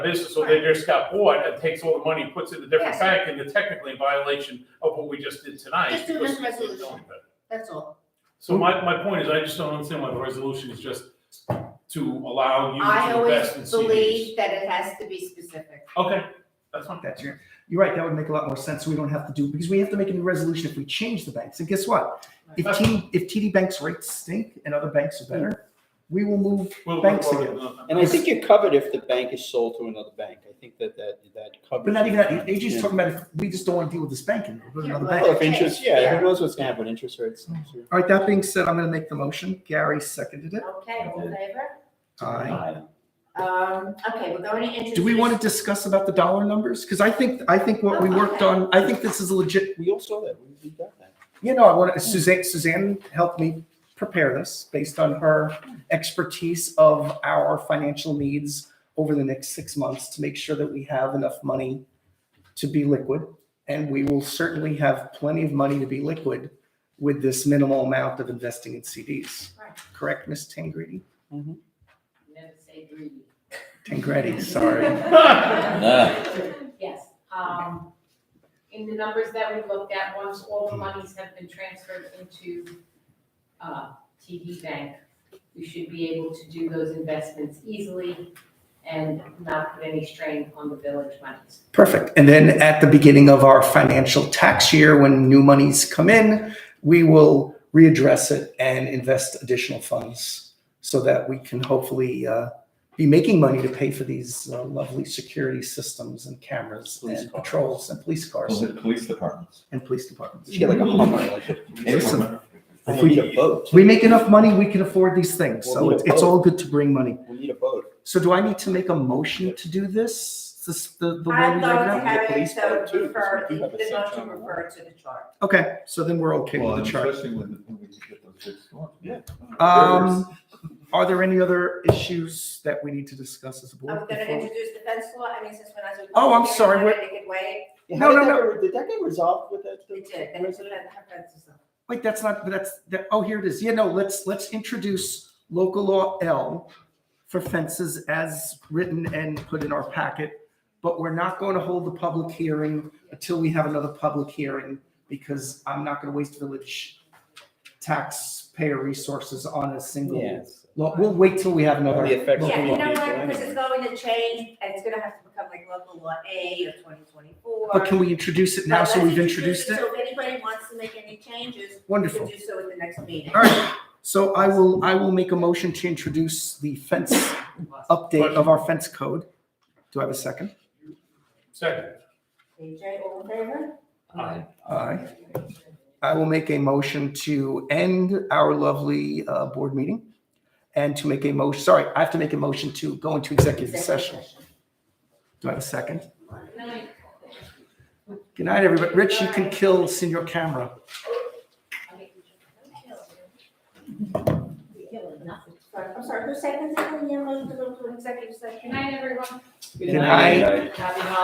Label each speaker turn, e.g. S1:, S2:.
S1: This, so they just got bought and takes all the money, puts it in a different
S2: Yes.
S1: bank, and they're technically in violation of what we just did tonight.
S2: Just do
S1: because
S2: this
S1: we didn't do
S2: resolution.
S1: anything.
S2: That's all.
S1: So my, my point is, I just don't understand why the resolution is just to allow you
S2: I
S1: to
S2: always
S1: invest in CDs.
S2: believe that it has to be specific.
S1: Okay, that's fine.
S3: That's your, you're right, that would make a lot more sense, we don't have to do, because we have to make a new resolution if we change the banks, and guess what? If
S1: Right.
S3: TD, if TD Bank's rates stink and other banks are better, we will move,
S1: We'll-
S3: Thanks
S1: we'll-
S3: again.
S1: uh,
S4: And I think you're covered if the bank is sold to another bank. I think that that, that covers.
S3: but not even that,
S4: Yeah.
S3: AJ's talking about, if we just don't want to deal with this bank anymore, we'll go to another
S2: Yeah,
S4: Well,
S3: bank.
S4: if interest,
S2: Yeah.
S4: yeah, who knows what's gonna happen, interest rates. next year.
S3: All right, that being said, I'm gonna make the motion, Gary seconded it.
S2: Okay, all in favor?
S3: Aye.
S2: Um, okay, we're going to introduce.
S3: Do we want to discuss about the dollar numbers? Because I think, I think what we worked on, I think this is a legit,
S4: We all saw that, we we got that.
S3: you know, I want Suzanne, Suzanne helped me prepare this based on her expertise of our financial needs over the next six months to make sure that we have enough money to be liquid. And we will certainly have plenty of money to be liquid with this minimal amount of investing in CDs.
S2: Right.
S3: Correct, Ms. Tangredi?
S2: Never say greedy.
S3: Tangredi, sorry.
S2: Yes, um,
S5: In the numbers that we looked at, once all the monies have been transferred into uh, TD Bank, we should be able to do those investments easily and not put any strain on the village monies.
S3: Perfect. And then at the beginning of our financial tax year, when new monies come in, we will readdress it and invest additional funds so that we can hopefully uh, be making money to pay for these uh, lovely security systems and cameras
S4: Police
S3: and
S4: cars.
S3: patrols and police cars
S6: Police- Police departments.
S3: and police departments.
S4: You get like a Hummer, like a.
S3: Listen,
S4: Oh, We need a boat.
S3: We make enough money, we can afford these things. So
S4: Well,
S3: it's, it's all good to bring money.
S4: We need a boat.
S3: So do I need to make a motion to do this? This the the way we
S2: I'm
S3: right
S2: going
S3: now?
S2: to have it
S4: police
S2: so
S4: board too,
S2: refer,
S4: because
S2: the
S4: we do have a
S2: not to
S4: section on the
S2: refer to the chart.
S3: Okay, so then we're okay
S6: Well,
S3: with
S6: and
S3: the chart.
S6: especially when, when we get those big storms.
S4: Yeah.
S3: Um, are there any other issues that we need to discuss as a
S2: I'm
S3: board?
S2: going to
S3: before-
S2: introduce the fence law, I mean, since when I was.
S3: Oh, I'm sorry,
S2: I
S3: we're-
S2: wanted to get away.
S4: Yeah,
S3: No,
S4: how did
S3: no,
S4: that get- Did that get resolved with that?
S2: It did, and it's
S4: resident?
S2: going to have fences up.
S3: Wait, that's not, that's, that, oh, here it is. Yeah, no, let's, let's introduce local law L for fences as written and put in our packet. But we're not going to hold the public hearing until we have another public hearing because I'm not going to waste village taxpayer resources on a single.
S4: Yes.
S3: law. We'll wait till we have another.
S4: Only affects
S3: local
S2: Yeah, you
S3: law.
S2: know
S4: law.
S2: what, because it's going to change, and it's going to have to become like local law A of twenty twenty-four.
S3: But can we introduce it now? So we've introduced it?
S2: So if anybody wants to make any changes, we
S3: Wonderful.
S2: can do so at the next meeting.
S3: All right, so I will, I will make a motion to introduce the fence update of our fence code. Do I have a second?
S1: Second,
S2: AJ, all in favor?
S1: Aye.
S3: Aye. I will make a motion to end our lovely uh, board meeting and to make a motion, sorry, I have to make a motion to go into executive session. Do I have a second? Good night, everybody. Rich, you can kill senior camera.
S2: I'm sorry, who seconded the motion to go to executive session?
S5: Good night, everyone.
S3: Good night.
S2: Happy holidays.